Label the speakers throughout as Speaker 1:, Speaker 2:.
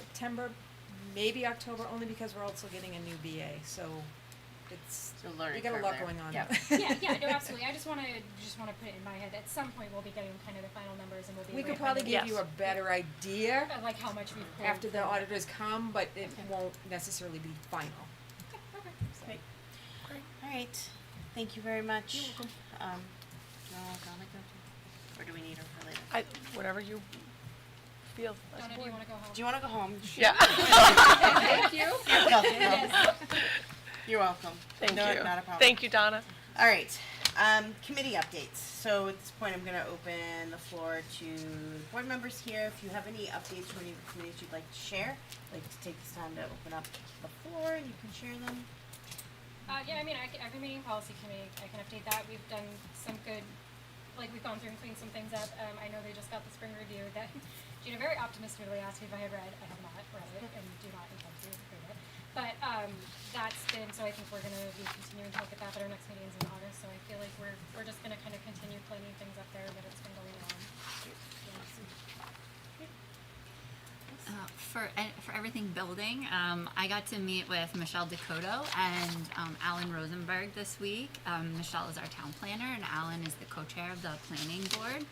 Speaker 1: September, maybe October, only because we're also getting a new BA, so it's,
Speaker 2: It's a learning
Speaker 1: we got a
Speaker 2: curve
Speaker 1: lot
Speaker 2: there.
Speaker 1: going on.
Speaker 2: Yep.
Speaker 3: yeah, yeah, no, absolutely. I just want to just want to put it in my head. At some point, we'll be getting kind of the final numbers, and we'll be.
Speaker 1: We
Speaker 3: able
Speaker 1: could
Speaker 3: to
Speaker 1: probably
Speaker 3: kind
Speaker 1: give you a
Speaker 4: Yes.
Speaker 1: better idea
Speaker 3: of- of, like how much we've pulled
Speaker 1: after the
Speaker 3: from-
Speaker 1: auditors come, but it
Speaker 3: Okay.
Speaker 1: won't necessarily be final.
Speaker 3: Okay, okay.
Speaker 1: Great.
Speaker 2: All right, thank you very much. You're welcome. Um, no, Donna, go to, or do we need her for later?
Speaker 4: I, whatever you feel. as
Speaker 3: Donna, do you
Speaker 4: board.
Speaker 3: want to go home?
Speaker 2: Do you wanna go home?
Speaker 4: Yeah.
Speaker 3: Thank you.
Speaker 2: You're welcome.
Speaker 3: Yes.
Speaker 2: You're welcome.
Speaker 4: Thank
Speaker 2: No,
Speaker 4: you.
Speaker 2: Not a problem.
Speaker 4: Thank you, Donna.
Speaker 2: All right, um, committee updates. So at this point, I'm gonna open the floor to board members here. If you have any updates from any of the committees you'd like to share, I'd like to take this time to open up the floor and you can share them.
Speaker 3: Uh, yeah, I mean, I can, I've been meeting policy committee, I can update that, we've done some good, like, we've gone through and cleaned some things up, um, I know they just got the spring review that Gina very optimistically asked me if I had read, I have not read it, and do not intend to read it. But, um, that's been, so I think we're gonna be continuing to look at that, but our next meeting is in August, so I feel like we're, we're just gonna kind of continue cleaning things up there, but it's been going on.
Speaker 5: Uh, for eh, for everything building, um, I got to meet with Michelle Dakota and um, Alan Rosenberg this week. Um, Michelle is our town planner, and Alan is the co-chair of the planning board.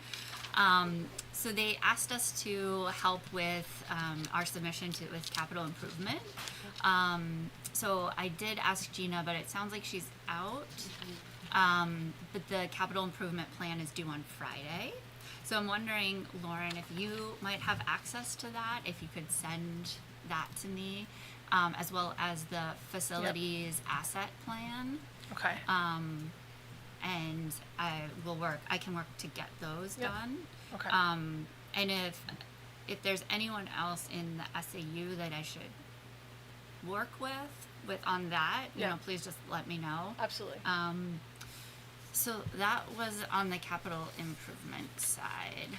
Speaker 5: Um, so they asked us to help with um, our submission to with capital improvement. Um, so I did ask Gina, but it sounds like she's out. Um, but the capital improvement plan is due on Friday. So I'm wondering, Lauren, if you might have access to that, if you could send that to me, um, as well as the facilities asset plan.
Speaker 4: Okay.
Speaker 5: Um, and I will work, I can work to get those
Speaker 4: Yep.
Speaker 5: done.
Speaker 4: Okay.
Speaker 5: Um, and if, if there's anyone else in the SAU that I should work with, with on that, you
Speaker 4: Yeah.
Speaker 5: know, please just let me know.
Speaker 4: Absolutely.
Speaker 5: Um, so that was on the capital improvement side.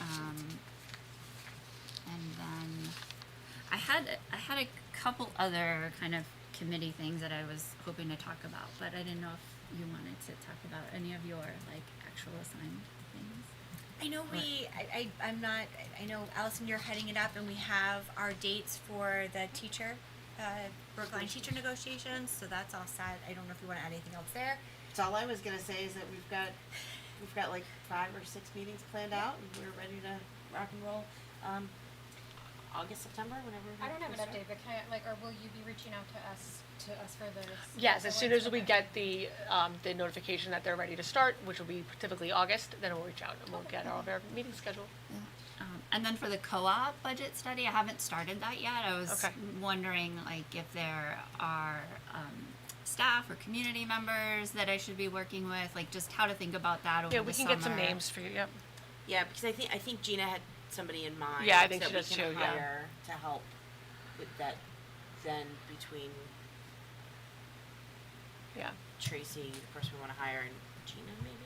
Speaker 5: Um, and then I had I had a couple other kind of committee things that I was hoping to talk about, but I didn't know if you wanted to talk about any of your like actual assigned things.
Speaker 6: I know we, I, I, I'm not, I know Allison, you're heading it up and we have our dates for the teacher, uh, Brookline teacher negotiations, so that's all set. I don't know if you wanna add anything else there.
Speaker 2: So all I was gonna say is that we've got, we've got like five or six meetings planned out, and we're ready to rock and roll. Um, August, September, whenever.
Speaker 3: I don't have
Speaker 2: we
Speaker 3: an
Speaker 2: start.
Speaker 3: update, but can I, like, or will you be reaching out to us, to us for those?
Speaker 4: Yes, as soon as we
Speaker 3: Okay.
Speaker 4: get the, um, the notification that they're ready to start, which will be typically August, then we'll reach out and we'll get all of our meetings scheduled.
Speaker 5: Um, and then for the co-op budget study, I haven't started that yet. I was
Speaker 4: Okay.
Speaker 5: wondering like if there are um, staff or community members that I should be working with, like just how to think about that over
Speaker 4: Yeah,
Speaker 5: the
Speaker 4: we can
Speaker 5: summer.
Speaker 4: get some names for you, yep.
Speaker 2: Yeah, because I think, I think Gina had somebody in mind.
Speaker 4: Yeah, I think
Speaker 2: that
Speaker 4: she
Speaker 2: we
Speaker 4: does
Speaker 2: can
Speaker 4: too, yeah.
Speaker 2: hire To help with that, then between
Speaker 4: Yeah,
Speaker 2: Tracy, the person we wanna hire, and Gina maybe?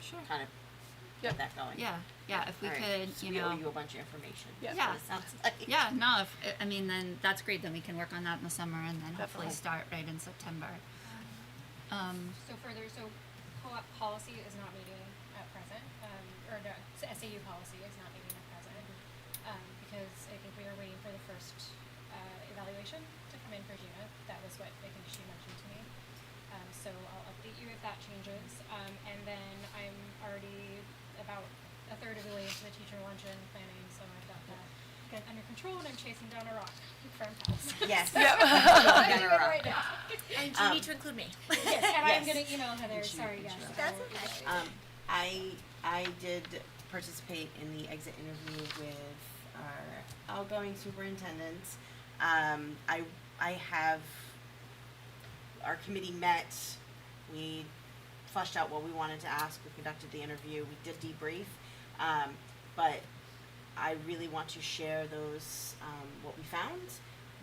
Speaker 5: Sure.
Speaker 2: To kind of get
Speaker 4: Yep.
Speaker 2: that going.
Speaker 5: Yeah, yeah. If we
Speaker 2: All right,
Speaker 5: could,
Speaker 2: so we
Speaker 5: you
Speaker 2: owe
Speaker 5: know.
Speaker 2: you a bunch of information. is what
Speaker 4: Yeah.
Speaker 5: Yeah.
Speaker 2: it sounds like.
Speaker 5: Yeah, no. If I mean, then that's great. Then we can work on that in the summer, and then hopefully
Speaker 4: Definitely.
Speaker 5: start right in September. Um,
Speaker 3: So further, so co-op policy is not meeting at present, um, or no, s- SAU policy is not meeting at present, um, because I think we were waiting for the first, uh, evaluation to come in for Gina, that was what I think she mentioned to me. Um, so I'll update you if that changes, um, and then I'm already about a third of the way into the teacher luncheon planning, so I've got that under control, and I'm chasing down a rock from house.
Speaker 2: Yes.
Speaker 3: I'm doing
Speaker 2: Down a
Speaker 3: it
Speaker 2: rock.
Speaker 3: right now.
Speaker 6: And you
Speaker 2: Um,
Speaker 6: need to include me.
Speaker 3: Yes, and
Speaker 2: Yes.
Speaker 3: I'm gonna email Heather,
Speaker 2: Did you-
Speaker 3: sorry,
Speaker 2: did
Speaker 3: yes.
Speaker 2: you-
Speaker 3: I
Speaker 6: That's
Speaker 3: will
Speaker 6: okay.
Speaker 3: email you.
Speaker 2: Um, I, I did participate in the exit interview with our outgoing superintendent. Um, I, I have, our committee met, we flushed out what we wanted to ask, we conducted the interview, we did debrief. Um, but I really want to share those, um, what we found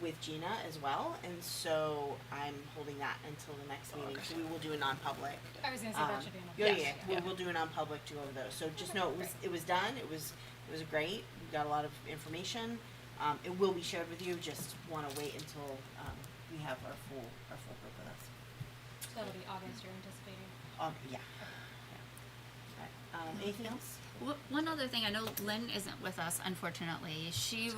Speaker 2: with Gina as well, and so I'm holding that until the next meeting, so we will do a non-public.
Speaker 3: I was gonna say that
Speaker 2: Um,
Speaker 3: should be in
Speaker 2: Yeah,
Speaker 3: a.
Speaker 2: yeah, we'll, we'll do an non-public to go over those, so just know it was, it was done, it was, it was great, we got a lot of information. Um, it will be shared with you, just wanna wait until, um, we have our full, our full group with us.
Speaker 3: That'll be August, you're anticipating.
Speaker 2: Um, yeah. yeah. Alright, um, anything else?
Speaker 5: wh- one other thing, I know Lynn isn't with us, unfortunately. She